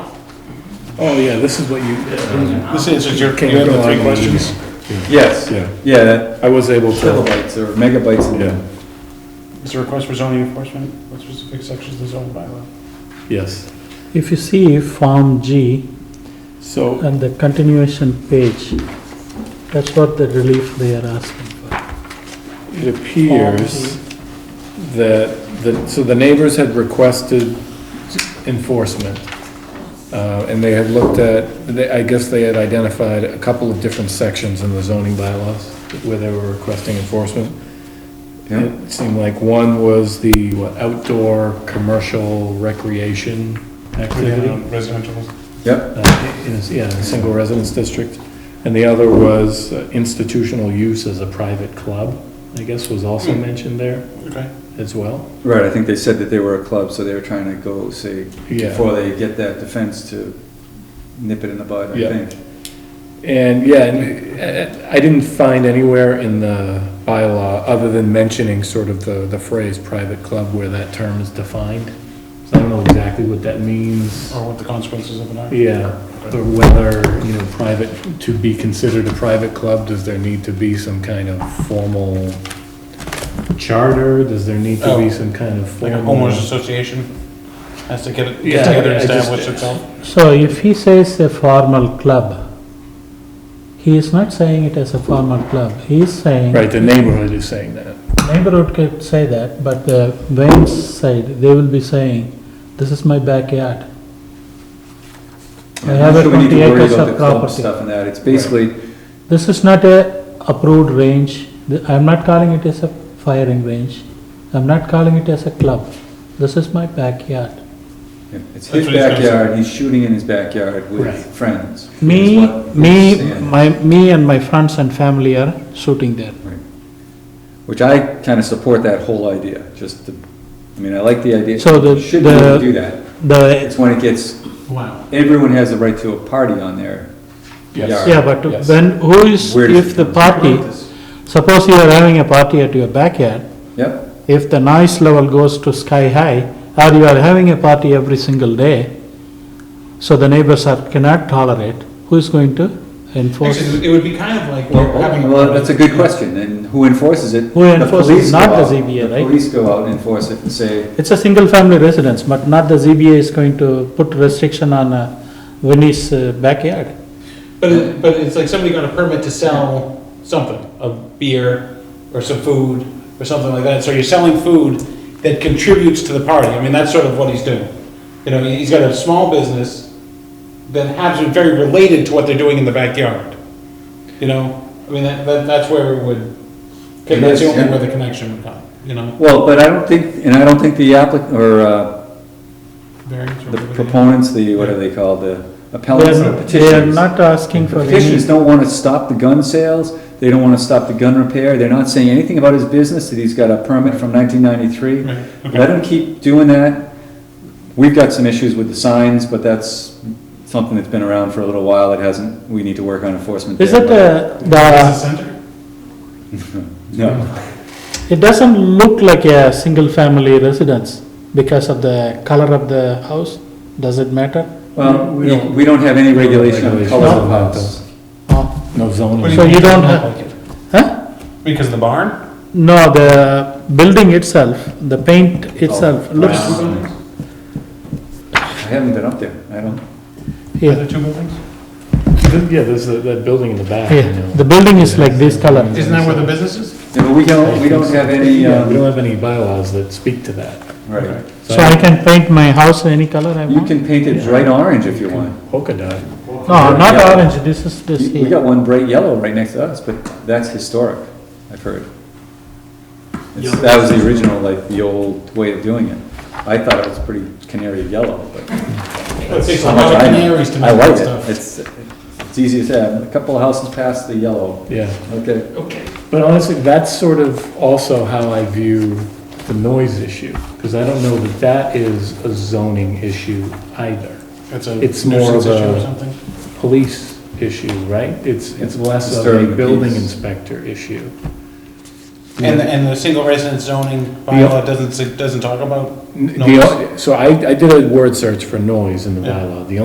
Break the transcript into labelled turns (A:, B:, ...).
A: Oh, yeah, this is what you,
B: This answers your,
A: Can
B: you
A: you
B: have
A: go
B: the
A: on
B: three
A: and-
B: questions?
C: Yes,
A: Yeah.
C: yeah, that-
A: I was able to,
C: kilobytes or megabytes. in-
A: yeah,
B: Is there a request for zoning enforcement with specific sections of the zoning bylaw?
A: yes.
D: If you see Form G
A: So,
D: and the continuation page, that's what the relief they are asking for.
A: It appears that, the so the neighbors had requested enforcement. Uh, and they had looked at, they, I guess they had identified a couple of different sections in the zoning bylaws where they were requesting enforcement.
C: Yeah.
A: It seemed like one was the what, outdoor, commercial, recreation activity.
B: Um, Residential,
C: Yep,
A: Uh, in, a- yeah, in a single residence district. And the other was uh, institutional use as a private club, I guess was also mentioned there
B: okay.
A: as well.
C: right, I think they said that they were a club, so they were trying to go, say,
A: Yeah,
C: before they get that defense to nip it in the bud, I
A: Yeah.
C: think.
A: and yeah, and uh, I didn't find anywhere in the bylaw, other than mentioning sort of the, the phrase private club where that term is defined. So I don't know exactly what that means,
B: Or what the consequences of it are?
A: yeah, or whether, you know, private, to be considered a private club, does there need to be some kind of formal charter? Does there need to
B: Oh.
A: be some kind of
B: Like a
A: formal?
B: homeowners association has to get it,
A: Yeah,
B: get together and
A: I just-
B: establish itself?
D: So if he says a formal club, he is not saying it as a formal club, he is saying.
A: Right, the neighborhood is saying that.
D: Neighborhood could say that, but the Wayne's side, they will be saying, this is my backyard. I
C: I'm
D: have
C: not
D: a
C: sure we need to
D: 20
C: worry
D: acres
C: about
D: of
C: the club
D: property.
C: Stuff and that, it's basically,
D: This is not a approved range, The- I'm not calling it as a firing range, I'm not calling it as a club, this is my backyard.
C: yeah,
B: That's
C: it's his
B: what he's gonna say.
C: backyard, he's shooting in his backyard
A: Right.
C: with friends. is
D: Me,
C: what we're
D: me,
C: saying.
D: my, me and my friends and family are shooting there.
C: Which I kinda support that whole idea, just the, I mean, I like the idea.
D: So the-
C: Should be able to
D: the-
C: do that.
D: The,
C: It's when it gets,
B: Wow.
C: everyone has the right to a party on their
A: Yes.
C: yard.
D: yeah, but
A: Yes.
D: when, who is,
C: Where does
D: if
C: it
D: the
C: come
D: party, suppose you are having a party at your backyard,
C: Yep,
D: if the noise level goes to sky high, or you are having a party every single day, so the neighbors are, cannot tolerate, who is going to enforce?
B: Actually, it would be kind of like
C: well,
B: you're having.
C: well, that's a good question, and who enforces it?
D: Who
C: The
D: enforces?
C: police go
D: Not the
C: out-
D: ZBA,
C: the
D: right?
C: Police go out and enforce it and say,
D: It's a single-family residence, but not the ZBA is going to put restriction on uh, Vinnie's uh, backyard.
E: But it, but it's like somebody got a permit to sell something, a beer or some food or something like that. So you're selling food that contributes to the party. I mean, that's sort of what he's doing. You know, he's got a small business that happens to be very related to what they're doing in the backyard. You know, I mean, that, that, that's where it would, that's the only where the connection would come, you know?
C: Well, but I don't think, and I don't think the applicant, or uh,
B: Variance or
C: the
B: whatever.
C: proponents, the, what are they called, the
D: They
C: appellants or
D: are, they are
C: petitioners.
D: not asking for
C: Petitioners
D: any,
C: don't want to stop the gun sales, they don't want to stop the gun repair, they're not saying anything about his business, that he's got a permit from nineteen ninety-three.
B: Right,
C: Let him keep doing that. We've got some issues with the signs, but that's something that's been around for a little while, it hasn't, we need to work on enforcement.
D: is
C: there,
D: it
C: but-
D: uh,
B: Business
D: the,
B: center?
C: No,
D: it doesn't look like a single-family residence because of the color of the house, does it matter?
C: well,
A: We don't-
C: we don't have any regulation on the
A: Regulation.
C: color of
A: No.
C: house.
D: Oh,
A: No zoning.
B: What do
D: So
B: mean
D: you don't
B: look
D: have-
B: like it?
D: Huh?
B: Because of the barn?
D: No, the building itself, the paint
C: Oh,
D: itself looks,
C: Wow. I haven't been up there, I don't.
B: Are
D: yeah,
B: there two buildings?
A: Yeah, there's that, that building in the back. you
D: yeah,
A: know.
D: the building is like this color.
B: Isn't that where the business is?
C: Yeah, but we don't, we don't have any,
A: Yeah, we
C: um,
A: don't have any bylaws that speak to that.
C: right.
D: So I can paint my house any color I
C: You
D: want?
C: can paint it bright orange if you want.
A: Polka dot.
D: No, not
C: Yeah.
D: orange, this is, this
C: We
D: here.
C: got one bright yellow right next to us, but that's historic, I've heard. It's- That was the original, like, the old way of doing it. I thought it was pretty canary yellow, but.
B: It takes a
C: how much
B: lot of
C: I know.
B: canaries to
C: I
B: make
C: like
B: that
C: it.
B: stuff.
C: It's, it's easy to say, a couple of houses past the yellow,
A: Yeah,
C: okay.
B: Okay.
A: but honestly, that's sort of also how I view the noise issue, because I don't know that that is a zoning issue either.
B: It's a
A: It's more of
B: nuisance issue
A: a-
B: or something?
A: Police issue, right? It's, it's less of
C: Disturbing
A: a
C: the
A: building
C: peace.
A: inspector issue.
B: And, the- and the single residence zoning bylaw doesn't, s- doesn't talk about
A: N- the
B: Noise.
A: o- So I, I did a word search for noise in the
B: Yeah.
A: bylaw. The